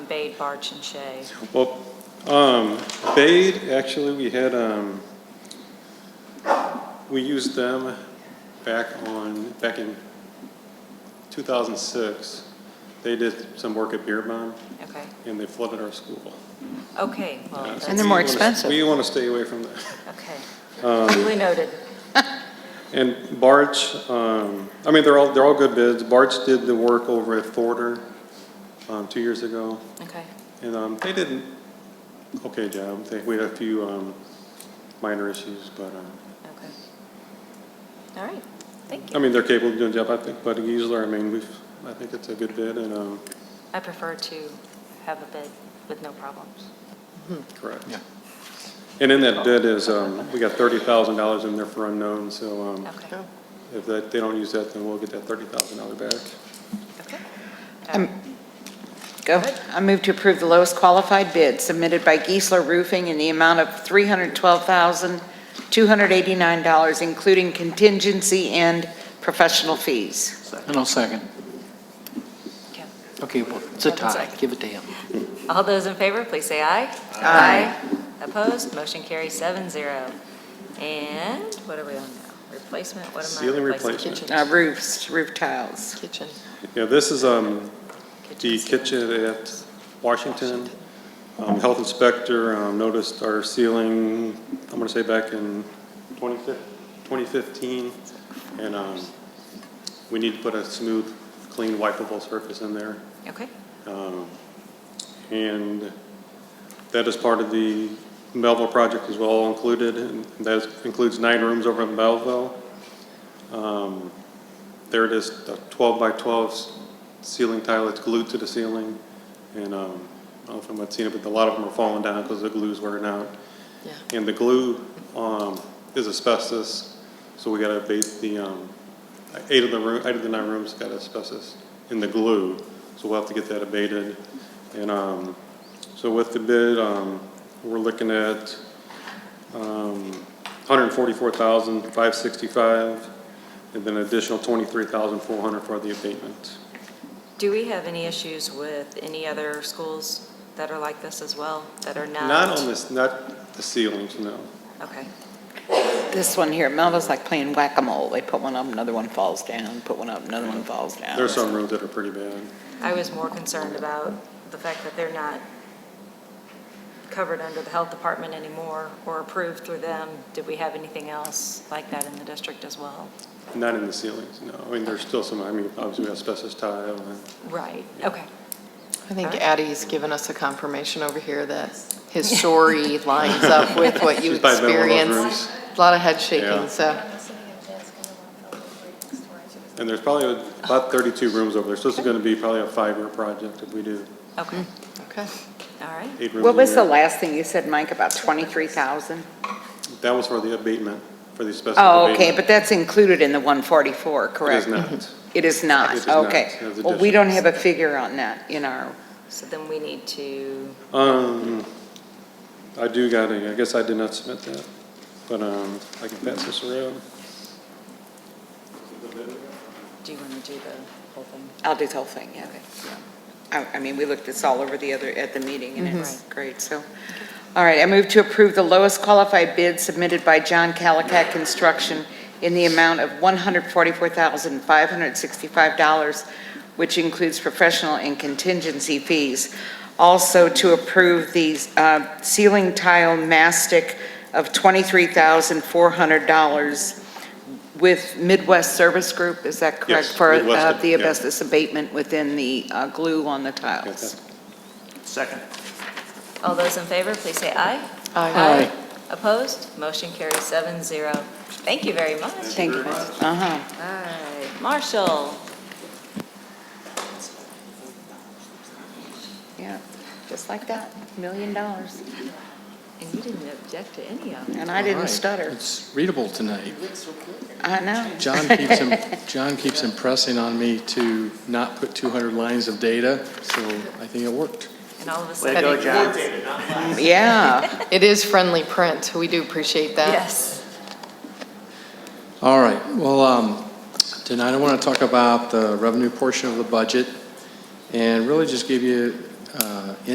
Bade, Barch, and Shea. Well, um, Bade, actually, we had, um, we used them back on, back in 2006. They did some work at Beer Bomb, Okay, and they flooded our school. Oh, okay, well, Uh, so that's, And they're more we wanna- expensive. We want to stay away from that. Um, okay. Duly noted. And Barch, um, I mean, they're all, they're all good bids. Barch did the work over at Thorder, um, two years ago. Okay, And um, they did an okay job. They, we had a few um, minor issues, but um, okay. All right, thank I you. mean they're capable of doing a job. I think, but Giesler, I mean, we've I think it's a good bid and um, I prefer to have a bid with no problems. correct. Yeah. And in that bid is um, we got thirty thousand dollars in there for unknown. So um, Okay, if that, they don't use that, then we'll get that thirty thousand dollar back. okay. Go. I move to approve the lowest qualified bid submitted by Geisler Roofing in the amount of $312,289, including contingency and professional fees. And I'll second. Okay. Okay, well, it's a Second, tie. second. Give it to him. All those in favor, please say aye. Aye. Opposed, motion carries seven zero. And what are we on now? Replacement, what am I? Ceiling replacing? replacement. Uh, Roofs, roof tiles. Kitchen. Yeah, this is um, the ceiling. kitchen at Washington. Um, Health inspector um, noticed our ceiling, I'm gonna say back in 2015, 2015, and um, we need to put a smooth, clean, wipeable surface in there. Okay, Um, And that is part of the Belleville project as well included, and that includes nine rooms over in Belleville. Um, There it is, the 12 by 12 s- ceiling tile, it's glued to the ceiling, and um, I don't know if anyone's seen it, but a lot of them are falling down because the glue's wearing out. And the glue um, is asbestos, so we gotta abate the, um, eight of the room, eight of the nine rooms got asbestos in the glue, so we'll have to get that abated. And um, so with the bid, um, we're looking at um, 144,565, and then additional 23,400 for the abatement. do we have any issues with any other schools that are like this as well, that are not? Not on this, not the ceilings, no. Okay, This one here, Melba's like playing whack-a-mole. They put one up, another one falls down, put one up, another one falls down. There's some rooms that are pretty bad. I was more concerned about the fact that they're not covered under the health department anymore or approved through them. Did we have anything else like that in the district as well? Not in the ceilings, no. I mean, there's still some, I mean, obviously we have asbestos tile and Right, okay, I think Addie's given us a confirmation over here that his story lines up with what you She's probably been in one of those experienced. A lot of head shaking, Yeah. so, And there's probably about 32 rooms over there, so this is going to be probably a five-year project if we do okay, okay. all right. eight rooms. What a was the year. last thing you said, Mike, about 23,000? That was for the abatement, for the asbestos Oh, okay, abatement. but that's included in the 144, It is correct? not. It is It not, is not. okay. It is a Well, we don't have difference. a figure on that in our, So then we need to, Um, I do got a, I guess I did not submit that, but um, I can pass this around. do you want to do the whole thing? I'll do the whole thing, yeah. I, I mean, we looked this all over the other, at the meeting, and it's great, so. All right, I move to approve the lowest qualified bid submitted by John Calicat Construction in the amount of $144,565, which includes professional and contingency fees. Also to approve the uh, ceiling tile mastic of $23,400 with Midwest Service Group, is that correct? Yes, For Midwest, uh, the yeah. asbestos abatement within the uh, glue on the Got tiles. that? All those in favor, please say aye. Aye. Opposed? Motion carries seven zero. Thank you very much. Thank you. Uh-huh. All right, Marshall, Yeah, just like that, million dollars. and you didn't object to any of them. And I All didn't right. stutter. It's readable tonight. I know. John keeps, im- John keeps impressing on me to not put 200 lines of data, so I think it worked. And all of a sudden. Yeah. It is friendly print, we do appreciate that. Yes. All right, well, um, tonight I want to talk about the revenue portion of the budget and really just give you uh,